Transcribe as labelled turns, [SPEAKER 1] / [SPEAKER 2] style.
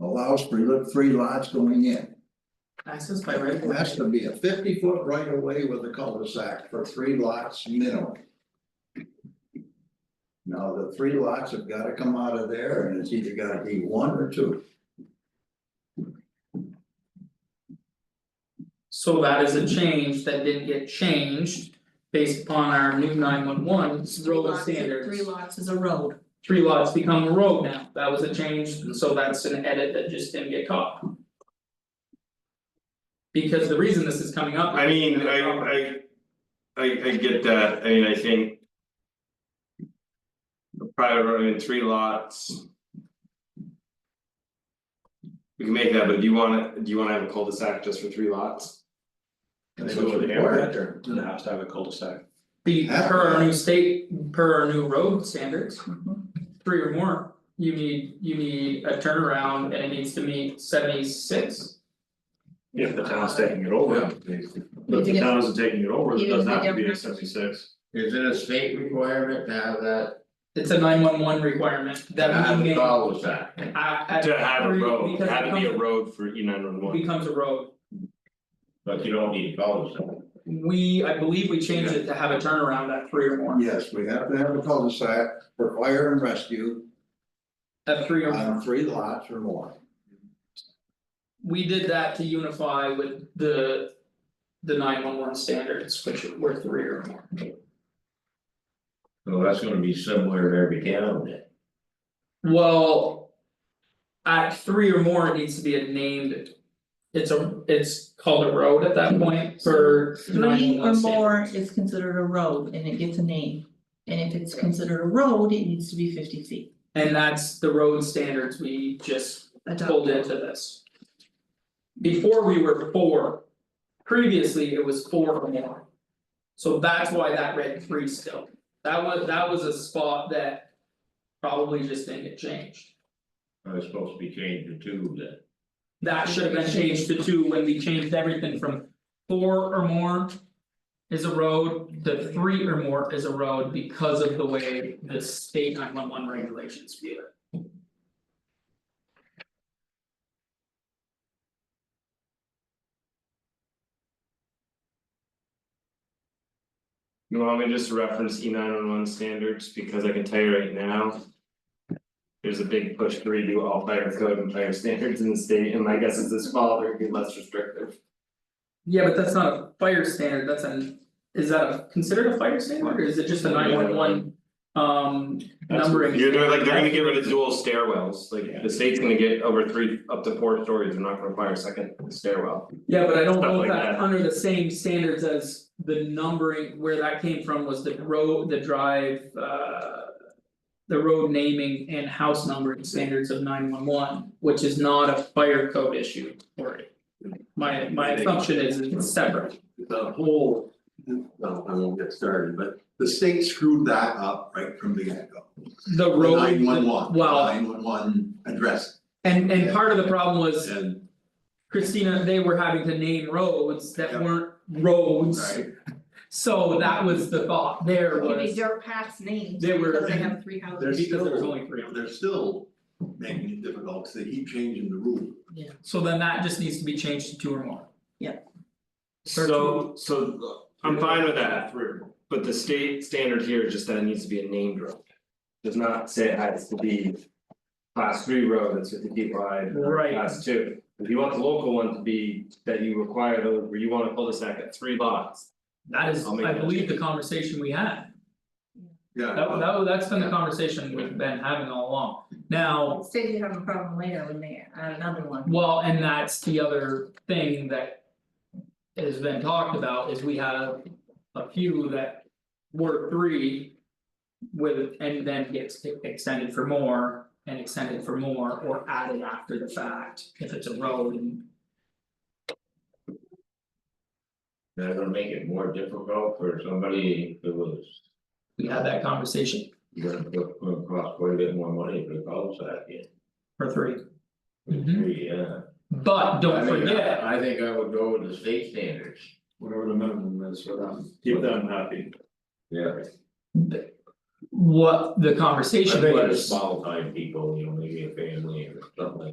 [SPEAKER 1] allows for li- three lots going in.
[SPEAKER 2] access by right of
[SPEAKER 1] It
[SPEAKER 2] way.
[SPEAKER 1] has to be a fifty foot right of way with a cul-de-sac for three lots minimum. Now, the three lots have gotta come out of there and it's either gotta be one or two.
[SPEAKER 2] So that is a change that didn't get changed based upon our new nine one one road standards.
[SPEAKER 3] Three lots is a road,
[SPEAKER 2] Three lots become a road now, that was a change, and so that's an edit that just didn't get caught. Because the reason this is coming up.
[SPEAKER 4] I mean, I I. I I get that, I mean, I think. a Private road in three lots. We can make that, but do you wanna, do you wanna have a cul-de-sac just for three lots?
[SPEAKER 5] And they
[SPEAKER 1] That's
[SPEAKER 5] go to the
[SPEAKER 1] what's
[SPEAKER 5] air
[SPEAKER 1] required.
[SPEAKER 5] actor, then it has to have a cul-de-sac.
[SPEAKER 2] The per our new state, per our new road standards,
[SPEAKER 4] Mm-hmm.
[SPEAKER 2] three or more, you need, you need a turnaround and it needs to meet seventy six.
[SPEAKER 5] If the town's taking it over, but if the town isn't taking it over, it
[SPEAKER 3] Even if
[SPEAKER 5] doesn't have
[SPEAKER 3] they
[SPEAKER 5] to be a
[SPEAKER 3] don't-
[SPEAKER 5] seventy-six.
[SPEAKER 6] Is it a state requirement to have that,
[SPEAKER 2] It's a nine one one requirement,
[SPEAKER 6] to
[SPEAKER 2] that
[SPEAKER 6] have
[SPEAKER 2] means
[SPEAKER 6] a cul-de-sac?
[SPEAKER 2] I I-
[SPEAKER 4] To have a
[SPEAKER 2] three-
[SPEAKER 4] road,
[SPEAKER 2] because it
[SPEAKER 4] have it be a
[SPEAKER 2] becomes-
[SPEAKER 4] road for E nine one one,
[SPEAKER 2] Becomes a road,
[SPEAKER 6] But you don't need a cul-de-sac.
[SPEAKER 2] we, I believe we changed it to have a turnaround at three or more,
[SPEAKER 1] Yes, we have to have a cul-de-sac for fire and rescue
[SPEAKER 2] at three or more.
[SPEAKER 1] on three lots or more.
[SPEAKER 2] We did that to unify with the. The nine one one standards, which were three or more.
[SPEAKER 6] So that's gonna be similar to every town then.
[SPEAKER 2] Well. At three or more, it needs to be a named. It's a, it's called a road at that point for nine
[SPEAKER 3] three
[SPEAKER 2] one
[SPEAKER 3] or
[SPEAKER 2] one
[SPEAKER 3] more is considered a road and it gets a name. And if it's considered a road, it needs to be fifty feet.
[SPEAKER 2] And that's the road standards we just pulled
[SPEAKER 3] Adopted.
[SPEAKER 2] into this. Before we were four. Previously, it was four or more. So that's why that read three still, that was, that was a spot that. Probably just didn't get changed.
[SPEAKER 6] Or It's supposed to be changed to two then.
[SPEAKER 2] That should have been changed to two when we changed everything from four or more. Is a road, to three or more is a road because of the way the state nine one one regulations view it.
[SPEAKER 4] you want me to just reference E nine one one standards, because I can tell you right now. There's a big push to redo all fire code and fire standards in the state, and my guess is this fall, there'd be less restrictive.
[SPEAKER 2] Yeah, but that's not a fire standard, that's an, is that a considered a fire standard or is it just a nine one one? Um numbering.
[SPEAKER 4] You're they're like, they're gonna
[SPEAKER 2] standard?
[SPEAKER 4] get rid of dual stairwells, like the state's gonna get over three, up to four stories, they're not gonna require a second stairwell.
[SPEAKER 2] Yeah, but I don't
[SPEAKER 4] Stuff
[SPEAKER 2] know if
[SPEAKER 4] like
[SPEAKER 2] that's
[SPEAKER 4] that.
[SPEAKER 2] under the same standards as the numbering, where that came from was the road, the drive, uh. The road naming and house numbering standards of nine one one, which is not a fire code issue for it. My my assumption is it's separate,
[SPEAKER 7] the whole, well, I won't get started, but the state screwed that up right from the get-go.
[SPEAKER 2] the road.
[SPEAKER 7] Nine one one,
[SPEAKER 2] Well,
[SPEAKER 7] nine one one address,
[SPEAKER 2] and and part of the problem was
[SPEAKER 7] and,
[SPEAKER 2] Christina, they were having to name roads that
[SPEAKER 7] Yeah.
[SPEAKER 2] weren't roads.
[SPEAKER 7] right,
[SPEAKER 2] So that was the thought there was.
[SPEAKER 3] Giving dirt paths names
[SPEAKER 2] They were-
[SPEAKER 3] because they have three houses.
[SPEAKER 7] There's-
[SPEAKER 2] Because there was only three of them.
[SPEAKER 7] they're still making it difficult, 'cause they keep changing the rule.
[SPEAKER 2] So then that just needs to be changed to two or more.
[SPEAKER 4] So so I'm fine with that, but the state standard here is just that it needs to be a named road. Does not say it has to be. Class three road that's fifty feet wide, or
[SPEAKER 2] Right.
[SPEAKER 4] class two, if you want the local one to be that you require those, where you wanna pull this at three lots.
[SPEAKER 2] That is,
[SPEAKER 4] I'll make
[SPEAKER 2] I
[SPEAKER 4] that
[SPEAKER 2] believe the conversation we had,
[SPEAKER 7] Yeah.
[SPEAKER 2] that that was- that's been the conversation we've been having all along. Now,
[SPEAKER 3] Say you have a problem later when they add another one.
[SPEAKER 2] well, and that's the other thing that. Has been talked about is we have a few that were three. With and then gets extended for more and extended for more or added after the fact if it's a road and.
[SPEAKER 6] They're gonna make it more difficult for somebody who was,
[SPEAKER 2] We had that conversation
[SPEAKER 6] you're gonna put, gonna cost quite a bit more money for a cul-de-sac in.
[SPEAKER 2] for three, Mhm.
[SPEAKER 6] Three, yeah.
[SPEAKER 2] but
[SPEAKER 6] I
[SPEAKER 2] Uh, don't
[SPEAKER 6] mean, I-
[SPEAKER 2] forget.
[SPEAKER 6] I think I would go with the state standards.
[SPEAKER 5] Whatever the minimum is for them, keep them happy.
[SPEAKER 6] Yeah.
[SPEAKER 2] what the
[SPEAKER 6] I
[SPEAKER 2] conversation
[SPEAKER 6] think
[SPEAKER 2] was.
[SPEAKER 6] it's small time people, you know, maybe a family or something like